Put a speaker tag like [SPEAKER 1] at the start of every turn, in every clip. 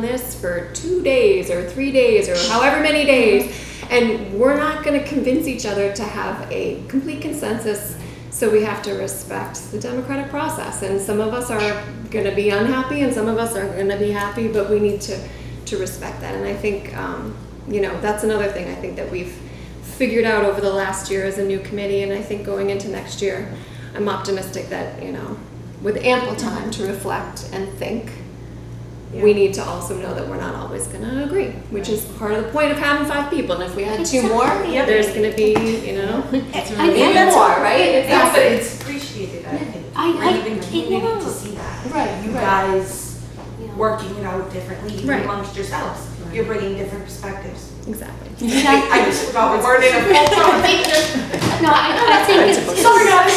[SPEAKER 1] this for two days or three days or however many days, and we're not going to convince each other to have a complete consensus. So we have to respect the democratic process, and some of us are going to be unhappy, and some of us are going to be happy, but we need to to respect that. And I think um, you know that's another thing I think that we've figured out over the last year as a new committee, and I think going into next year, I'm optimistic that you know with ample time to reflect and think we need to also know that we're not always going to agree, which is part of the point of having five people. And if we had two more,
[SPEAKER 2] Yep.
[SPEAKER 1] there's going to be, you know,
[SPEAKER 3] And-
[SPEAKER 1] maybe
[SPEAKER 3] and that's-
[SPEAKER 1] more, right?
[SPEAKER 2] Yeah, but
[SPEAKER 1] Exactly.
[SPEAKER 2] it's appreciated, I think.
[SPEAKER 3] I-
[SPEAKER 2] We're
[SPEAKER 3] I-
[SPEAKER 2] even
[SPEAKER 3] yeah.
[SPEAKER 2] beginning to see that.
[SPEAKER 3] Right,
[SPEAKER 2] You
[SPEAKER 3] right.
[SPEAKER 2] guys
[SPEAKER 3] Yeah.
[SPEAKER 2] working it out differently even
[SPEAKER 1] Right.
[SPEAKER 2] amongst yourselves. You're bringing different perspectives.
[SPEAKER 1] exactly.
[SPEAKER 3] Exactly.
[SPEAKER 2] I just forgot we weren't in a full conversation.
[SPEAKER 3] No, I, I think it's,
[SPEAKER 2] Sorry, guys.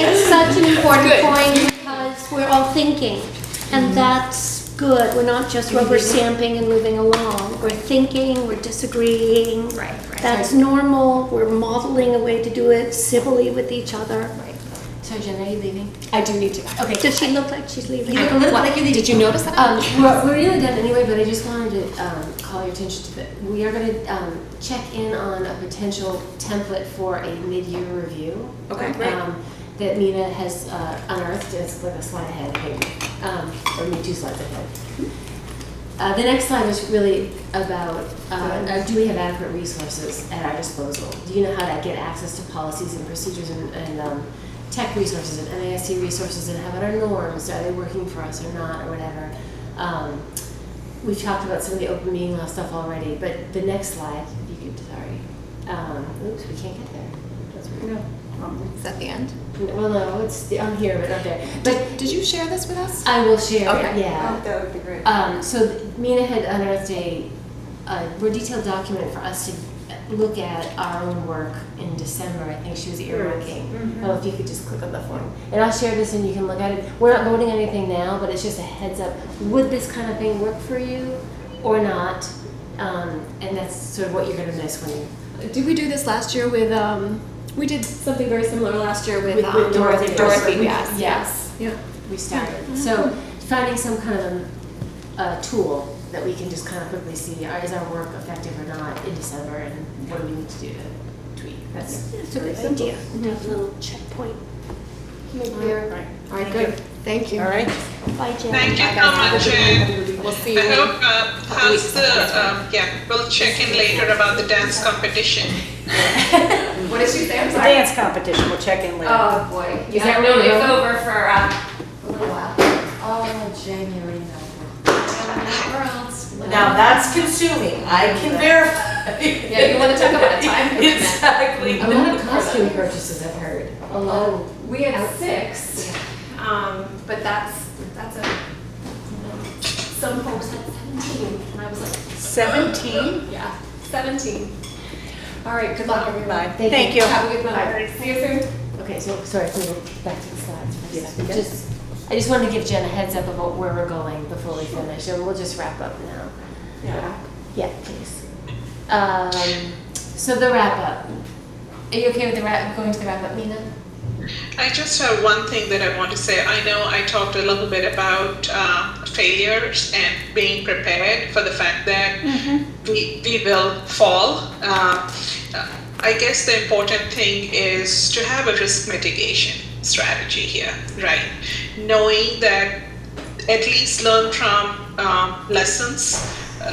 [SPEAKER 3] it's such an important
[SPEAKER 1] Good. Mm-hmm.
[SPEAKER 3] point because we're all thinking, and that's good. We're not just rubber stamping and moving along. We're thinking, we're disagreeing.
[SPEAKER 1] Right, right.
[SPEAKER 3] That's normal. We're modeling a way to do it civilly with each other.
[SPEAKER 4] So Jen, are you leaving?
[SPEAKER 1] I do need to go.
[SPEAKER 4] Okay.
[SPEAKER 3] Does she look like she's leaving?
[SPEAKER 4] You look like you
[SPEAKER 1] Did you notice that?
[SPEAKER 4] Um, we're, we're nearly done anyway, but I just wanted to um, call your attention to that. We are going to um, check in on a potential template for a mid-year review.
[SPEAKER 1] Okay, great.
[SPEAKER 4] Um, that Mina has uh, unearthed. It's like a slide ahead, maybe, um, or maybe two slides ahead. Uh, the next slide is really about uh, uh, do we have adequate resources at our disposal? Do you know how to get access to policies and procedures and, and um, tech resources and NISC resources and how about our norms? Are they working for us or not or whatever? Um, we've talked about some of the open meeting law stuff already, but the next slide, if you could, sorry. Um, oops, we can't get there. That's weird.
[SPEAKER 1] Um, Is that the end?
[SPEAKER 4] Well, no, it's on here, but not there. But
[SPEAKER 1] Did you share this with us?
[SPEAKER 4] I will share.
[SPEAKER 1] Okay.
[SPEAKER 4] It, yeah.
[SPEAKER 2] Oh, That would be great.
[SPEAKER 4] Um, so th- Mina had unearthed a, a more detailed document for us to look at our own work in December. I think she was earmarking. Oh, if you could just click on the form, and I'll share this, and you can look at it. We're not voting on anything now, but it's just a heads up. Would this kind of thing work for you, or not? Um, and that's sort of what you're going to miss when you.
[SPEAKER 1] Did we do this last year with, um, we did something very similar last year with,
[SPEAKER 4] With-
[SPEAKER 1] um,
[SPEAKER 4] with Dorothy.
[SPEAKER 1] Dorothy,
[SPEAKER 4] We-
[SPEAKER 1] yes, yes.
[SPEAKER 4] yes.
[SPEAKER 1] Yeah.
[SPEAKER 4] we started. So finding some kind of uh, tool that we can just kind of quickly see, are- is our work effective or not in December, and what do we need to do to tweak? That's,
[SPEAKER 3] It's a good idea.
[SPEAKER 1] Mm-hmm.
[SPEAKER 3] to have a little checkpoint.
[SPEAKER 1] All right, good. Thank you. All right.
[SPEAKER 3] Bye, Jen.
[SPEAKER 5] Thank you so much, Jen.
[SPEAKER 1] We'll see you.
[SPEAKER 5] I
[SPEAKER 1] in-
[SPEAKER 5] hope, uh, how's the, um, yeah, we'll check in later about the dance competition.
[SPEAKER 1] What did she say? I'm
[SPEAKER 6] The
[SPEAKER 1] sorry.
[SPEAKER 6] dance competition, we'll check in later.
[SPEAKER 1] Oh, boy. Is that really? It's over for, uh, a little while.
[SPEAKER 2] Oh, January
[SPEAKER 6] Now that's consuming, I can verify.
[SPEAKER 1] Yeah, you wanna talk about a time commitment.
[SPEAKER 6] Exactly.
[SPEAKER 4] a lot of costume purchases I've heard. A lot. of-
[SPEAKER 1] We had six, um, but that's, that's a, some folks had seventeen, and I was like,
[SPEAKER 6] Seventeen?
[SPEAKER 1] yeah, seventeen. All right, good luck, everybody.
[SPEAKER 4] Thank
[SPEAKER 6] Thank you.
[SPEAKER 1] Have a good night. See you soon.
[SPEAKER 4] Okay, so, sorry, can we go back to the slides for a second? Just, I just wanted to give Jen a heads up about where we're going before we finish, and we'll just wrap up now.
[SPEAKER 1] Yeah.
[SPEAKER 4] Yeah, please. Um, so the wrap up. Are you okay with the wrap, going to the wrap up, Mina?
[SPEAKER 5] I just have one thing that I want to say. I know I talked a little bit about uh, failures and being prepared for the fact that we, we will fall. Uh, I guess the important thing is to have a risk mitigation strategy here, right? Knowing that at least learn from um, lessons,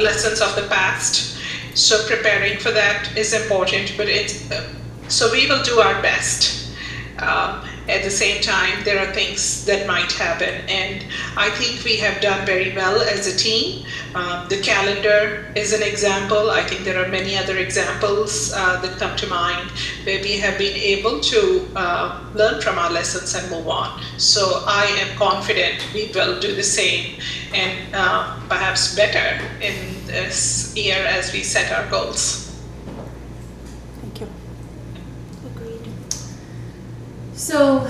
[SPEAKER 5] lessons of the past. So preparing for that is important, but it's uh, so we will do our best. Um, at the same time, there are things that might happen, and I think we have done very well as a team. Um, the calendar is an example. I think there are many other examples uh, that come to mind where we have been able to uh, learn from our lessons and move on. So I am confident we will do the same and uh, perhaps better in this year as we set our goals.
[SPEAKER 3] Agreed.
[SPEAKER 4] So,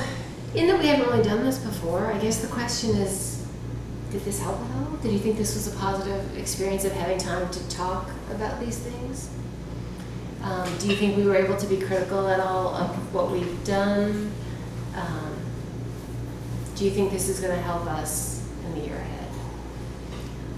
[SPEAKER 4] in that we haven't really done this before, I guess the question is, did this help at all? Did you think this was a positive experience of having time to talk about these things? Um, do you think we were able to be critical at all of what we've done? Um, do you think this is going to help us in the year ahead?